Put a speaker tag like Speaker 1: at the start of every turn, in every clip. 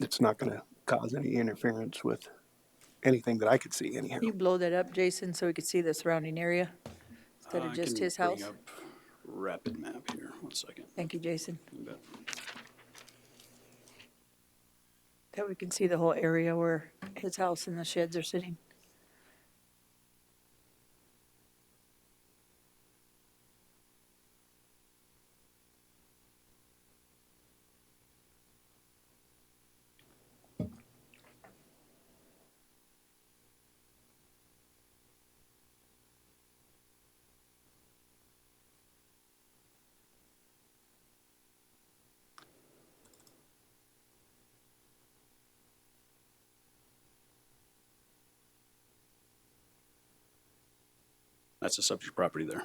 Speaker 1: it's not going to cause any interference with anything that I could see anyhow.
Speaker 2: Can you blow that up, Jason, so we could see the surrounding area instead
Speaker 3: I
Speaker 2: of just
Speaker 3: can
Speaker 2: his
Speaker 3: bring
Speaker 2: house?
Speaker 3: up Rapid map here, one second.
Speaker 2: Thank you, Jason.
Speaker 3: You bet.
Speaker 2: That we can see the whole area where his house and the sheds are sitting.
Speaker 3: That's the subject property there.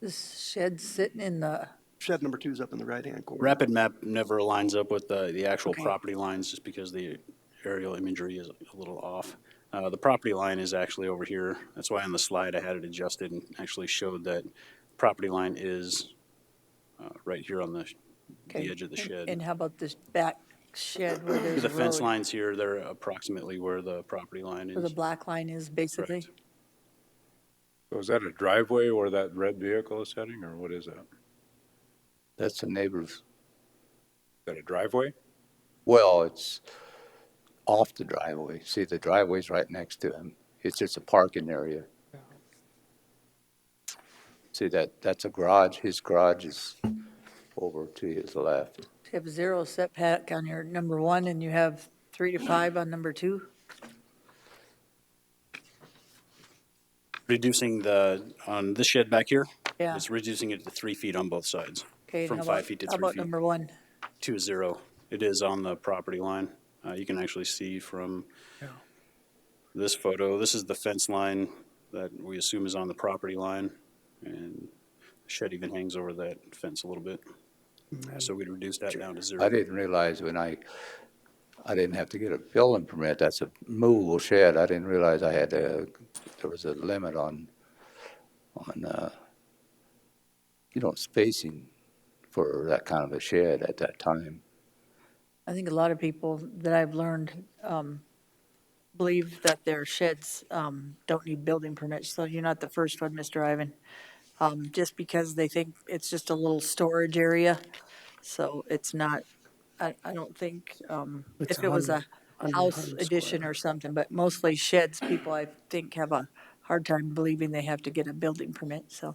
Speaker 2: This shed's sitting in the,
Speaker 1: Shed number two is up in the right-hand corner.
Speaker 3: Rapid map never lines up with the, the actual
Speaker 2: Okay.
Speaker 3: property lines just because the aerial imagery is a little off. Uh, the property line is actually over here. That's why on the slide I had it adjusted and actually showed that property line is uh, right here on the,
Speaker 2: okay.
Speaker 3: the edge of the
Speaker 2: And-
Speaker 3: shed.
Speaker 2: And how about this back shed where there's a
Speaker 3: The
Speaker 2: road?
Speaker 3: fence lines here, they're approximately where the property line
Speaker 2: Where the
Speaker 3: is.
Speaker 2: black line is, basically?
Speaker 4: So Oh, is that a driveway where that red vehicle is heading, or what is that? Is
Speaker 5: That's the neighbor's,
Speaker 4: that a driveway?
Speaker 5: well, it's off the driveway. See, the driveway's right next to him. It's just a parking area. See, that, that's a garage. His garage is over to his left.
Speaker 2: You have zero setback on your number one, and you have three to five on number two?
Speaker 3: Reducing the, on this shed back here,
Speaker 2: Yeah,
Speaker 3: it's reducing it to three feet on both sides.
Speaker 2: okay. and
Speaker 3: from
Speaker 2: how
Speaker 3: five
Speaker 2: about-
Speaker 3: feet to
Speaker 2: How
Speaker 3: three
Speaker 2: about
Speaker 3: feet.
Speaker 2: number one?
Speaker 3: Two zero. It is on the property line. Uh, you can actually see from this photo, this is the fence line that we assume is on the property line. And the shed even hangs over that fence a little bit. So we'd reduce that down to
Speaker 5: I
Speaker 3: zero.
Speaker 5: didn't realize when I, I didn't have to get a building permit. That's a movable shed. I didn't realize I had a, there was a limit on, on, uh, you know, spacing for that kind of a shed at that time.
Speaker 2: I think a lot of people that I've learned um, believe that their sheds um, don't need building permits, so you're not the first one, Mr. Ivan. Um, Just because they think it's just a little storage area, so it's not, I, I don't think, um,
Speaker 6: It's
Speaker 2: if it was a
Speaker 6: 100
Speaker 2: house
Speaker 6: 100
Speaker 2: addition
Speaker 6: square.
Speaker 2: or something, but mostly sheds, people I think have a hard time believing they have to get a building permit, so.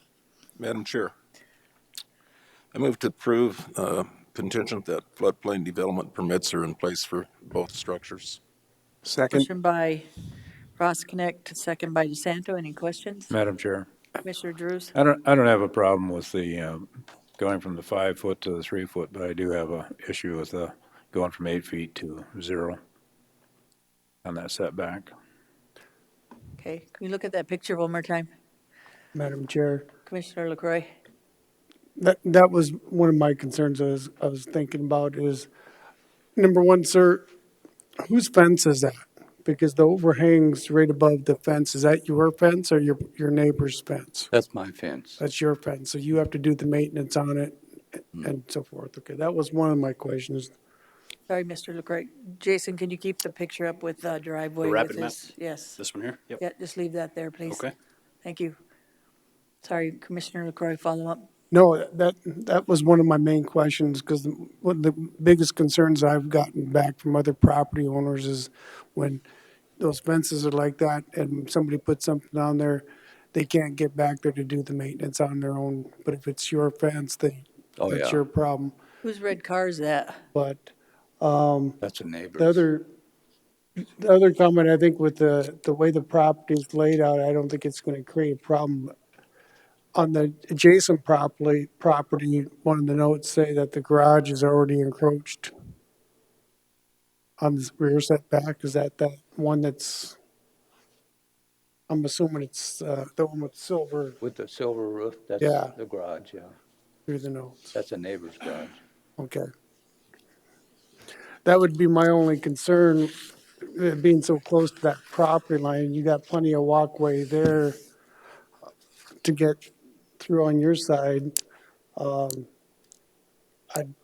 Speaker 7: Madam Chair, I move to approve uh, contingent that floodplain development permits are in place for both structures.
Speaker 1: Second,
Speaker 2: Motion by Ross Connect, second by DeSanto, any questions?
Speaker 4: Madam Chair,
Speaker 2: Commissioner Drews?
Speaker 4: I don't, I don't have a problem with the, um, going from the five foot to the three foot, but I do have a issue with the, going from eight feet to zero on that setback.
Speaker 2: Okay, can you look at that picture one more time?
Speaker 6: Madam Chair,
Speaker 2: Commissioner LaCroy?
Speaker 6: that, that was one of my concerns I was, I was thinking about is, number one, sir, whose fence is that? Because the overhang's right above the fence. Is that your fence or your, your neighbor's fence?
Speaker 5: That's my fence.
Speaker 6: That's your fence, so you have to do the maintenance on it and so forth. Okay, that was one of my questions.
Speaker 2: Sorry, Mr. LaCroy. Jason, can you keep the picture up with uh, driveway?
Speaker 3: The
Speaker 2: with
Speaker 3: rapid map?
Speaker 2: his- Yes.
Speaker 3: This one here? Yep.
Speaker 2: Yeah, just leave that there, please.
Speaker 3: Okay.
Speaker 2: Thank you. Sorry, Commissioner LaCroy, follow up.
Speaker 6: No, that, that was one of my main questions, because one of the biggest concerns I've gotten back from other property owners is when those fences are like that and somebody puts something on there, they can't get back there to do the maintenance on their own. But if it's your fence, then
Speaker 5: Oh,
Speaker 6: that's
Speaker 5: yeah.
Speaker 6: your problem.
Speaker 2: Whose red car is that?
Speaker 6: But
Speaker 5: That's a neighbor's.
Speaker 6: the other, the other comment, I think with the, the way the property is laid out, I don't think it's gonna create a problem. On the adjacent property, property, one of the notes say that the garage is already encroached on this rear setback, is that that one that's, I'm assuming it's, uh, the one with silver
Speaker 5: With the silver roof, that's
Speaker 6: Yeah.
Speaker 5: the garage, yeah.
Speaker 6: through the notes?
Speaker 5: That's a neighbor's garage.
Speaker 6: Okay. That would be my only concern, uh, being so close to that property line. You got plenty of walkway there uh, to get through on your side. Um, I'd